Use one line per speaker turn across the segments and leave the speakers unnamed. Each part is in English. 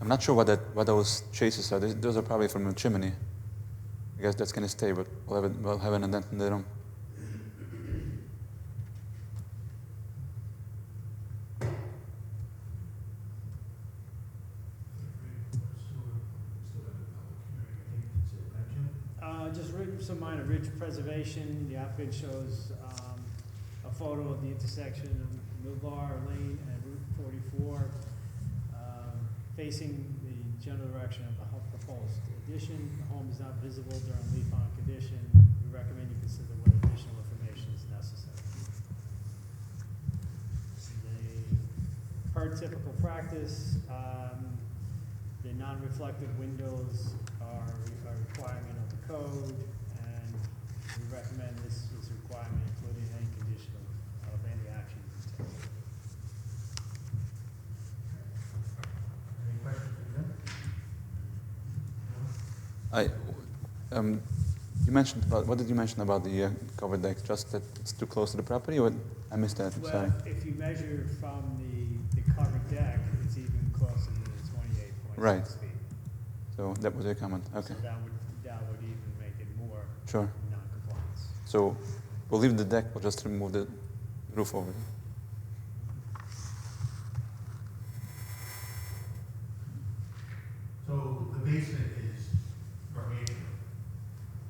I'm not sure what that what those chases are. Those- Those are probably from a chimney. I guess that's gonna stay, but we'll have it, we'll have an indent in the room.
Uh, Just re- some minor ridge preservation. The applicant shows um, a photo of the intersection of Milbar Lane and Route 44 um, facing the general direction of the hu- proposed addition. The home is not visible during leaf-on condition. We recommend you consider what additional information is necessary. They- Per typical practice, um, the non-reflective windows are a requirement of the code, and we recommend this is a requirement including any condition of, of any action.
Any questions from them?
I, um, you mentioned about what did you mention about the uh, covered deck? Just that it's too close to the property, or I missed that. I'm
Well,
sorry.
if you measure from the, the covered deck, it's even closer to the twenty-eight point
Right.
six feet.
So that was your comment. Okay,
So that would, that would even make it more
sure.
non-compliance.
So we'll leave the deck. We'll just remove the roof over. it.
So the basement is gargantuan.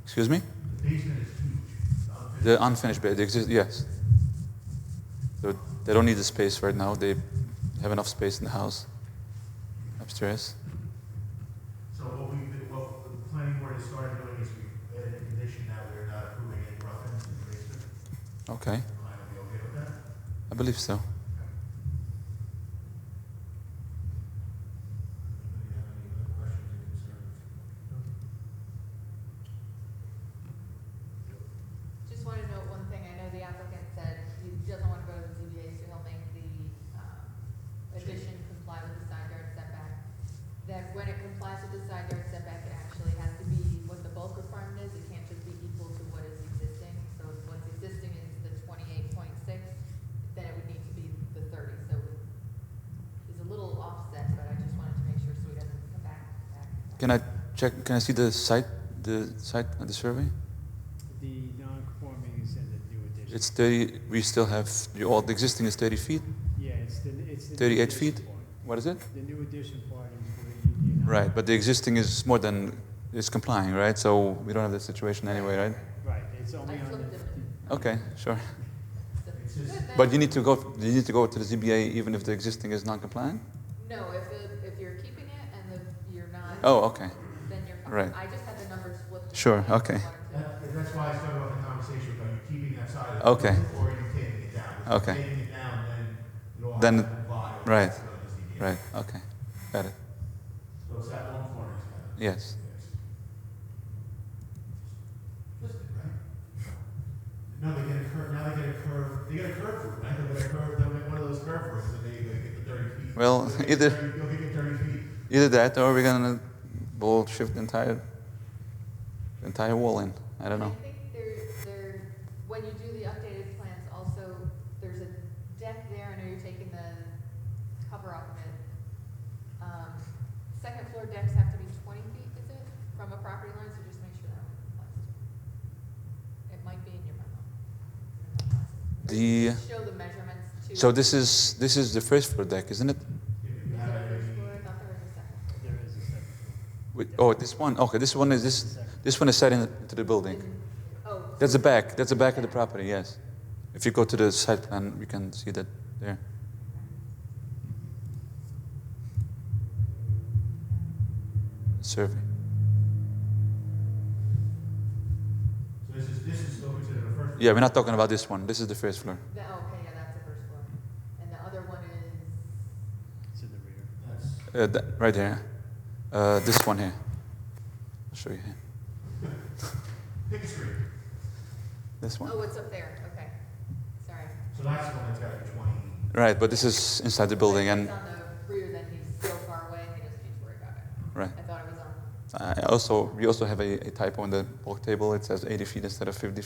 Excuse me.
The basement is huge. Uh,
The unfinished bed. Exist. Yes. So they don't need the space right now. They have enough space in the house upstairs.
So what we, what the planning board has started doing is we added a condition that we're not approving any rough ends in the basement.
Okay,
Am I gonna be okay with that?
I believe so.
Anybody have any other questions or concerns?
Just want to note one thing, I know the applicant said he doesn't want to go to the ZBA, so he'll make the um, addition comply with the side yard setback. That when it complies with the side yard setback, it actually has to be what the bulk requirement is, it can't just be equal to what is existing. So if what's existing is the twenty-eight point six, then it would need to be the thirty, so it's a little offset, but I just wanted to make sure so he doesn't come back. back.
Can I check? Can I see the site? The site of the survey?
The non-conforming is in the new addition.
It's 30. We still have the old the existing is 30 feet.
Yeah, it's the, it's the. new
38
addition
feet?
part.
What is it?
The new addition part is where you, you're not.
Right, but the existing is more than is complying, right? So we don't have that situation anyway, right?
Right, it's only
I
on
flipped
the,
it.
Okay, sure.
So-
It's just-
Good,
But you need to go. You need to go to the ZBA even if the existing is non-compliant.
No, if, it- if you're keeping it and the, you're not,
Oh, okay.
then you're fine.
right.
I just had the numbers flipped.
Sure, okay.
That, that's why I started off the conversation about you keeping that side of the
Okay.
building or you taking it down. If
Okay.
you're Taking it down, then you'll have
Then-
to comply. with
right,
the ZBA.
Right. Okay. Got it.
So it's that one corner. it's got it.
Yes.
Just it, right? No, they get a curve, now they get a curve, they get a curve room, right? They'll get a curve, they'll make one of those curve rooms and they, they get the thirty feet.
Well,
They'll get
either-
30 They'll get thirty feet.
Either that, or we're gonna we'll shift the entire the entire wall in. I don't know.
I think there, there, when you do the updated plans, also, there's a deck there, I know you're taking the cover off of it. Um, Second floor decks have to be twenty feet, is it, from a property line, so just make sure that one applies. to It It might be in your memo.
The
Just Show the measurements to.
so this is this is the first floor deck, isn't it?
If
Is
you
it
have
the
any-
first floor? I thought there was a second.
there is a second floor.
Wait, oh, this one. Okay, this one is this this one is set into the building.
Oh.
That's the back. That's the back of the property. Yes. If you go to the site plan, we can see that there. Survey.
So this is, this is still considered a first.
Yeah, we're not talking about this one. This is the first floor.
The, oh, okay, yeah, that's the first floor. And the other one is,
It's in the rear.
That's,
Uh, th- right there. Uh, this one here. I'll show you here.
pick a street.
This one.
oh, it's up there, okay. Sorry.
So that's the one that's got the twenty.
Right, but this is inside the building, and
It's on the rear, then he's so far away, he doesn't need to worry about it.
right.
I thought it was on
uh, I also we also have a, a typo on the bulk table. It says 80 feet instead of 50 feet.